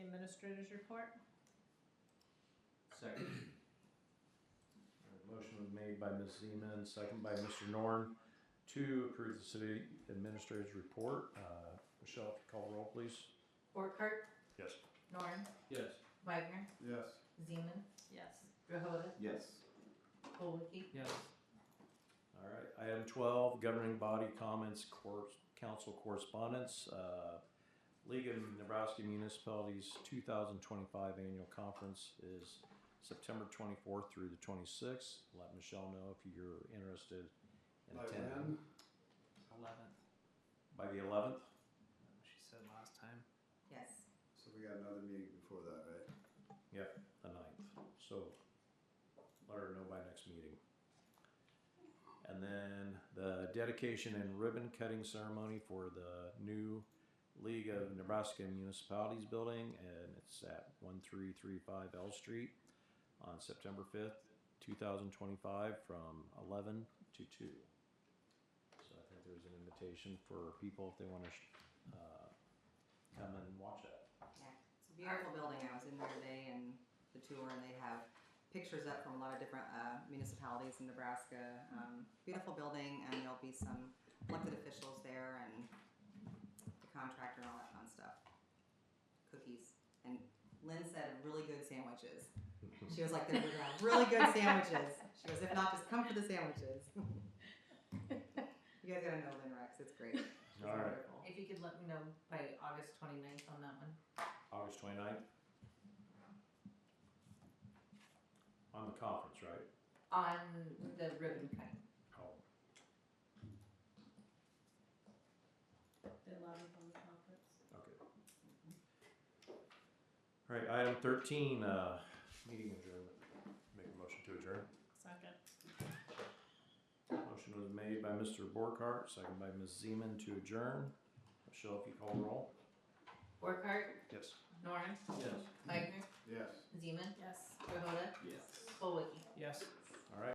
Administrator's report. Second. Alright, Motion was made by Ms. Zeman, second by Mr. Norn to approve the city administrator's report. Uh, Michelle, if you call roll, please. Borkert, Yes. Norn, Yes. Wagner, Yes. Zeman, Yes. Rohoda, Yes. Colwicky, Yes. All right, item twelve, governing body comments, cor- council correspondence. Uh, League of Nebraska Municipalities two thousand twenty-five annual conference is September twenty-fourth through the twenty-sixth. Let Michelle know if you're interested in By attending. Eleventh, By the eleventh? she said last time. yes. So we got another meeting before that, right? the ninth, so let her know by next meeting. And then the dedication and ribbon cutting ceremony for the new League of Nebraska Municipalities building, and it's at one three three five L Street on September fifth, two thousand twenty-five, from eleven to two. So I think there's an invitation for people if they wanna, sh- uh, come and watch that. It's a beautiful building. I was in there today and the tour, and they have pictures up from a lot of different uh, municipalities in Nebraska. Um, beautiful building, and there'll be some elected officials there and the contractor and all that fun stuff. Cookies. And Lynn said really good sandwiches. She was like, they're gonna have really good sandwiches. She goes, if not, just come for the sandwiches. you guys gotta know Lynn Rex. It's great. She's All right. wonderful. If you could let me know by August 29th on that one. August 29th? On the conference, right? On the ribbon cutting. Oh, They love it on the conference. okay. All right, item 13, uh, meeting adjournment. Make a motion to adjourn. Second. Motion was made by Mr. Borkart, second by Ms. Zeman to adjourn. Michelle, if you call roll. Borkart, Yes. Norm, Yes. Wagner, Yes. Zeman. Yes. Rohoda,